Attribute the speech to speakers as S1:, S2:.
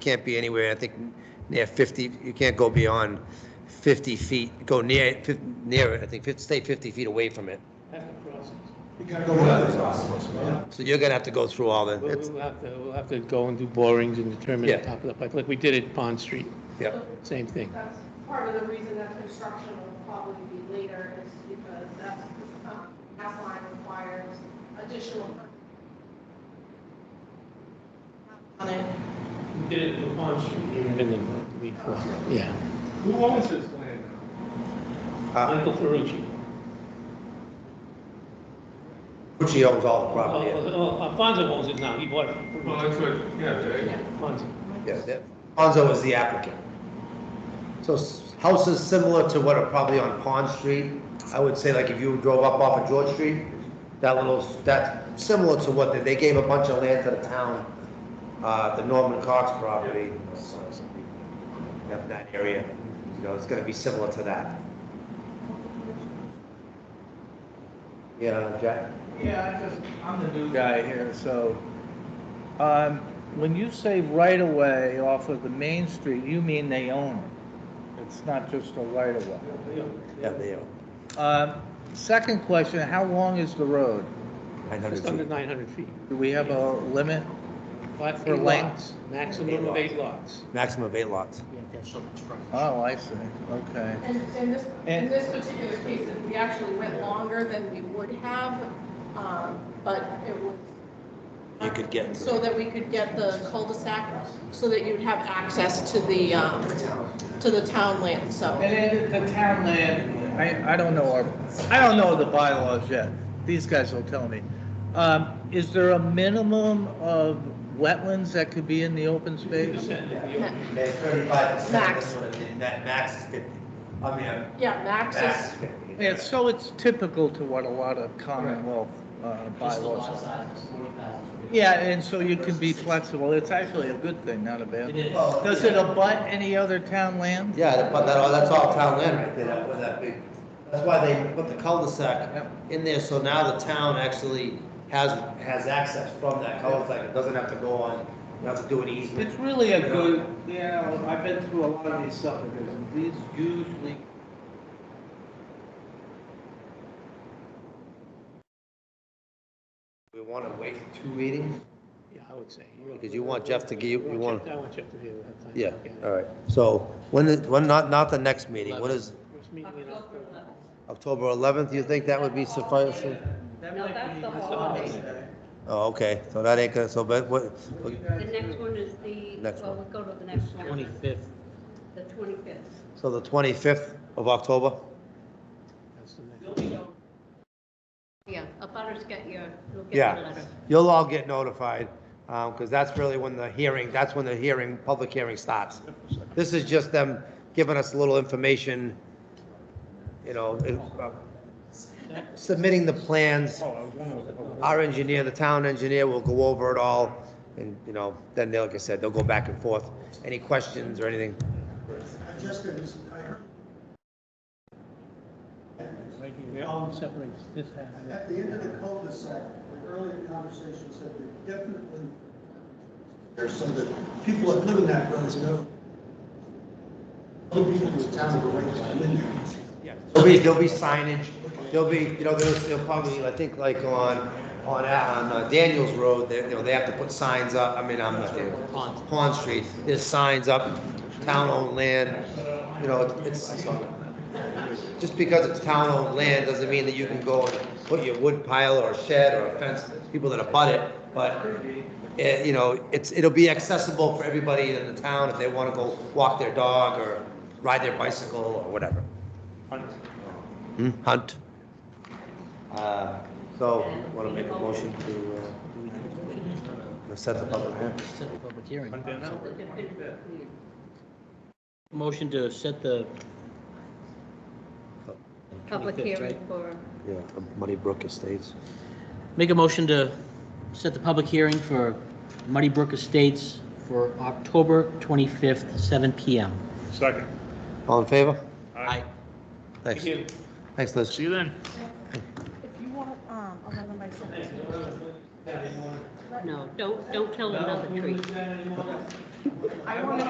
S1: can't be anywhere, I think, near 50, you can't go beyond 50 feet, go near, it, fif- near it, I think, fif- stay 50 feet away from it.
S2: Have to process.
S3: You gotta go with it.
S1: So you're gonna have to go through all the,
S2: We'll
S1: it's-
S2: we'll have to, we'll have to go and do borings and determine the
S1: Yeah.
S2: top of the pipe, like we did at Pond Street,
S1: yeah,
S2: same thing.
S4: That's part of the reason that construction will probably be later is because that's, um, that line requires additional. On it.
S2: We did it at Pond Street. Yeah,
S3: Who owns this land
S1: Uh,
S2: Michael Ferrucci.
S1: Gucci owns all the
S2: Oh,
S1: property, yeah.
S2: oh, Alfonso owns it now, he bought it. from
S3: now? Well, that's what, yeah, they,
S2: Alfonso.
S1: yeah. that- Ponzo is the applicant. So s- houses similar to what are probably on Pond Street, I would say like if you drove up off of George Street, that little, that, similar to what, they- they gave a bunch of land to the town, uh, the Norman Cox property. That, that area, you know, it's gonna be similar to that. Yeah, Jack?
S5: Yeah, I just, I'm the new guy here, so, um, when you say right of way off of the main street, you mean they own it? It's not just a right of way?
S1: Yeah, they are.
S5: Um, second question, how long is the road?
S2: Just under 900 feet.
S5: Do we have a limit?
S2: Lot-
S5: For
S2: eight
S5: lengths?
S2: lots, Maximum of eight lots.
S1: Maximum of eight lots.
S5: Oh, I see, okay.
S4: And, and this, in
S5: And-
S4: this particular case, we actually went longer than we would have, um, but it was.
S1: You could get into
S4: So that we could get the cul-de-sac, so that you'd have access to the, um, to the town land, so.
S5: And then the town land, I, I don't know our, I don't know the bylaws yet. These guys will tell me. Um, is there a minimum of wetlands that could be in the open space?
S1: There's thirty-five percent.
S4: Max.
S1: That max is fifty. I mean, uh,
S4: Yeah, Max
S1: max is
S4: is,
S1: fifty.
S5: Yeah, so it's typical to what a lot of Commonwealth uh, bylaws are. Yeah, and so you can be flexible. It's actually a good thing, not a bad. thing.
S1: Well,
S5: Does it abut any other town land?
S1: Yeah, that- but that, all- that's all town land right there, that, with that big, that's why they put the cul-de-sac
S5: Yep.
S1: in there, so now the town actually has, has access from that cul-de-sac, it doesn't have to go on, you have to do an
S5: It's
S1: easement.
S5: really a good, you know, I've been through a lot of these subdivisions, these usually.
S1: We wanna wait two meetings?
S2: Yeah, I would say.
S1: Because you want Jeff to give, you
S2: I
S1: want,
S2: Jeff- I want Jeff to be able to have time.
S1: yeah, all right, so, when is, when, not, not the next meeting, what is,
S2: First meeting in October.
S1: October eleventh, you think that would be sufficient?
S5: No, that's the
S6: holiday.
S1: Oh, okay, so that ain't gonna, so, but what,
S6: The next one is the,
S1: Next
S6: well,
S1: one.
S6: we go to the next one. Twenty-fifth. The twenty-fifth.
S1: so the twenty-fifth of October?
S2: That's the next.
S6: Yeah, a butter's get your, you'll get the
S1: Yeah,
S6: letter.
S1: you'll all get notified, because that's really when the hearing, that's when the hearing, public hearing starts. This is just them giving us a little information, you know, it- uh, submitting the plans. Our engineer, the town engineer will go over it all, and, you know, then, they'll like I said, they'll go back and forth. Any questions or anything?
S7: I just, I heard,
S2: They're
S5: Oh,
S2: all separate, this happened.
S7: at the end of the cul-de-sac, the earlier conversation said that definitely there's some that people that live in that road know. Other people in the town are going to come in there.
S1: There'll be, there'll be signage, there'll be, you know, there's, there'll probably, I think, like on, on, uh, on uh, Daniels Road, they, you know, they have to put signs up, I mean, I'm not there. Pond Street, there's signs up, town-owned land, you know, it's, it's- just because it's town-owned land doesn't mean that you can go and put your wood pile or shed or a fence, people that abut it, but, eh, you know, it's, it'll be accessible for everybody in the town if they wanna go walk their dog or ride their bicycle or whatever. Hmm, Hunt. Uh, So, want to make a motion to uh, to set the public hearing?
S8: Motion to set the
S6: Public
S8: 25th,
S6: hearing for,
S1: Yeah, from Muddy Brook Estates.
S8: Make a motion to set the public hearing for Muddy Brook Estates for October 25th, 7 PM.
S3: second.
S1: All in favor?
S8: Aye.
S1: Thanks. Thanks, Liz.
S3: you then.
S9: If you want, um, eleven by seventeen.
S6: no, don't, don't kill another tree.
S4: I want to